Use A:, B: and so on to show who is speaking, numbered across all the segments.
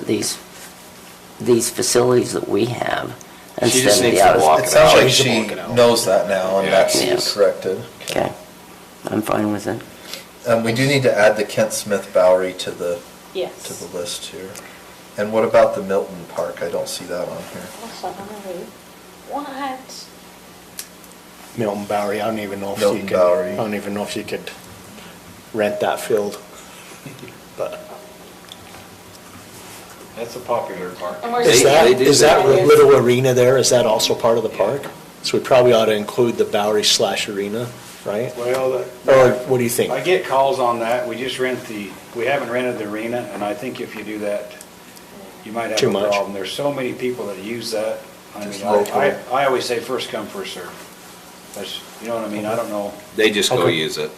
A: these, these facilities that we have
B: She
A: instead
B: just
A: of the
B: needs to walk
A: others.
B: it
C: It sounds
B: out.
C: like
B: She should
C: she
B: walk it out.
C: knows that now, and
B: Yeah.
C: that's
A: Yeah.
C: corrected.
A: Okay, I'm fine with it.
C: Um, we do need to add the Kent Smith Bowery to the, to
D: Yes.
C: the list here. And what about the Milton Park? I don't see that on here.
D: Also, I'm gonna read. What?
E: Milton Bowery, I don't even know if you
C: Milton
E: could,
C: Bowery.
E: I don't even know if you could rent that field. But
B: That's a popular park.
D: And we're-
E: is
D: They-
E: that,
D: they do
E: is that
D: that.
E: little arena there, is that also part of the
B: Yeah.
E: park? So we probably ought to include the Bowery slash arena, right?
F: Well,
E: Or
F: the-
E: what do you think?
F: I get calls on that. We just rent the, we haven't rented the arena, and I think if you do that, you might have
E: Too
F: a
E: much.
F: problem. There's so many people that use that. I mean,
C: Just local.
F: I, I I always say first come, first serve. That's, you know what I mean? I don't know.
B: They just go
E: Okay.
B: use it.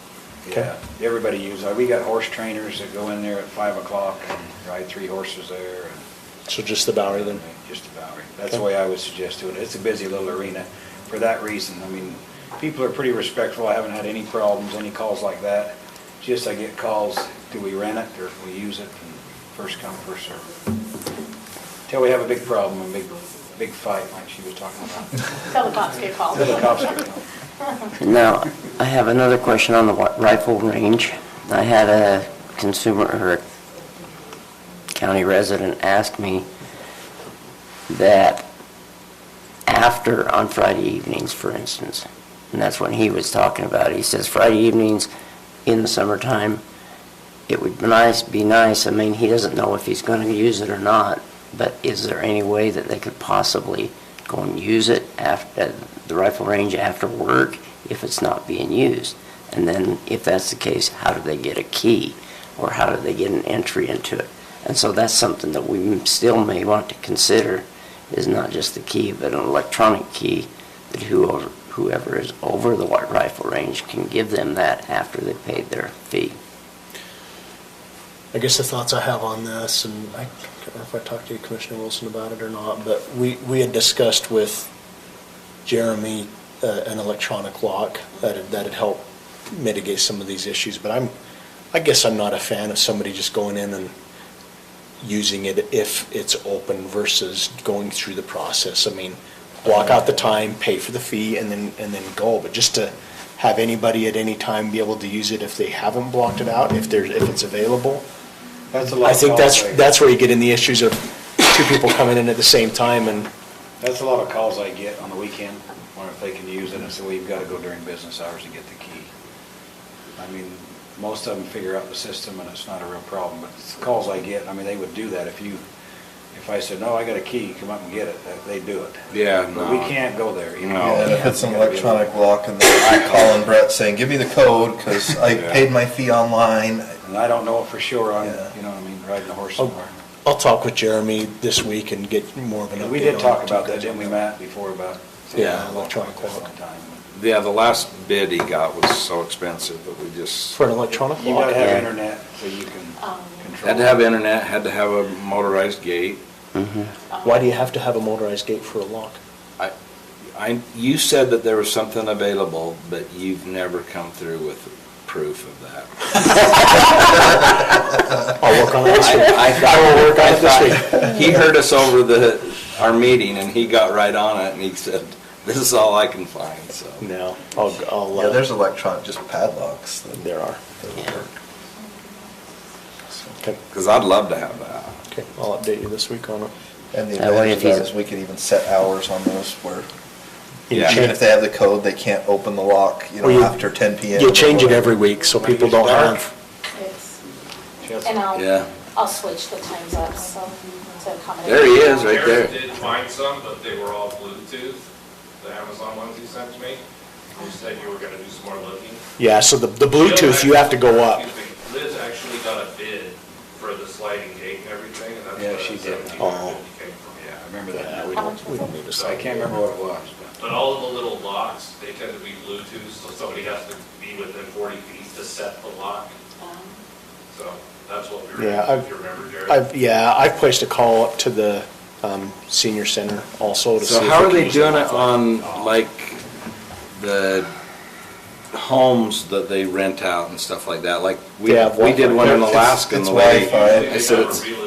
E: Okay.
F: Yeah, everybody uses it. We got horse trainers that go in there at five o'clock and ride three horses there and.
E: So just the Bowery then?
F: Just the Bowery. That's the way I would suggest doing it. It's a busy little arena for that reason. I mean, people are pretty respectful. I haven't had any problems, any calls like that. Just I get calls, do we rent it or we use it? And First come, first serve. Till we have a big problem, a big, big fight like she was talking about.
D: Tell the cops get called.
F: Till the cops get called.
A: Now, I have another question on the wi- rifle range. I had a consumer or a county resident ask me that after, on Friday evenings, for instance, and that's when he was talking about, he says Friday evenings in the summertime, it would be nice, be nice, I mean, he doesn't know if he's going to use it or not, but is there any way that they could possibly go and use it after, the rifle range after work if it's not being used? And then if that's the case, how do they get a key? Or how do they get an entry into it? And so that's something that we m- still may want to consider, is not just the key, but an electronic key that whoever, whoever is over the wi- rifle range can give them that after they paid their fee.
E: I guess the thoughts I have on this, and I can't remember if I talked to you, Commissioner Wilson about it or not, but we, we had discussed with Jeremy uh, an electronic lock that that'd help mitigate some of these issues, but I'm, I guess I'm not a fan of somebody just going in and using it if it's open versus going through the process. I mean, block out the time, pay for the fee, and then, and then go. But just to have anybody at any time be able to use it if they haven't blocked it out, if there's, if it's available.
F: That's a lot.
E: I think that's,
F: of calls I-
E: that's where you get in the issues of two people coming in at the same time and,
F: That's a lot of calls I get on the weekend, wondering if they can use it. I say, well, you've got to go during business hours to get the key. I mean, most of them figure out the system and it's not a real problem, but it's the calls I get, I mean, they would do that if you, if I said, no, I got a key, come up and get it, that- they'd do it.
B: Yeah,
F: But we
B: no.
F: can't go there, you know?
B: No.
C: And if it's an
F: You gotta be-
C: electronic lock and then I call in Brett saying, give me the code, because I
B: Yeah.
C: paid my fee online.
F: And I don't know it for sure, I'm,
C: Yeah.
F: you know what I mean, riding a horse
E: Oh.
F: somewhere.
E: I'll talk with Jeremy this week and get more of an update.
F: And we did
E: on
F: talk
E: it.
F: about that, didn't we, Matt, before about?
E: Yeah, electronic
F: At one
E: clock.
F: time.
B: Yeah, the last bid he got was so expensive that we just,
E: For an electronic
F: You gotta
E: lock?
F: have
A: Yeah.
F: internet so you can
D: Um,
F: control.
B: had to have internet, had to have a motorized gate.
D: Um,
E: Why do you have to have a motorized gate for a lock?
B: I, I, you said that there was something available, but you've never come through with proof of that.
E: I'll work on it this week.
B: I- I thought-
E: I will work on it this
B: I
E: week.
B: thought- He heard us over the, our meeting and he got right on it and he said, this is all I can find, so.
E: No, I'll, I'll. uh,
C: Yeah, there's electronic, just padlocks. that-
E: There are.
C: that work.
E: Okay,
B: Cause I'd love to have that.
E: okay, I'll update you this week on it.
C: And the
A: That way
C: advantage
A: if
C: of that
A: he's-
C: is we could even set hours on those where,
E: You
B: Yeah.
C: even
E: change-
C: if they have the code, they can't open the lock, you
E: Well,
C: know,
E: you-
C: after ten PM.
E: You
C: or
E: change it
C: whatever.
E: every week, so
F: When it
E: people
F: gets
E: don't
F: dark.
E: have,
D: Yes.
F: Yes.
D: And
B: Yeah.
D: I'll, I'll switch the times up, so, to accommodate.
B: There he is, right there.
G: Karen did find some, but they were all Bluetooth, the Amazon ones you sent to me. You said you were gonna do some more looking.
E: yeah, so the, the Bluetooth, you have to go up.
G: Excuse me, Liz actually got a bid for the sliding gate and everything, and that's
F: Yeah,
G: where the
F: she did.
G: seventeen
E: Oh.
G: hundred fifty came from,
F: Yeah, I
G: yeah.
F: remember
E: Yeah,
F: that.
E: we don't, we don't need to
F: So I
E: sign.
F: can't remember what it was, but.
G: But all of the little locks, they tend to be Bluetooth, so somebody has to be within forty feet to set the lock,
D: Um,
G: so that's what we were,
E: Yeah, I've-
G: if you remember, Jared.
E: I've, yeah, I've placed a call up to the, um, senior center also to see.
B: So
E: if
B: how
E: we
B: are
E: can
B: they
E: use the
B: doing it
E: Wi-Fi.
B: on, like, the homes that they rent out and stuff like that? Like, we,
E: They have
B: we did
E: Wi-Fi.
B: one in
C: It's-
B: Alaska in
C: it's
B: the way.
C: Wi-Fi.
B: I said it's,
G: They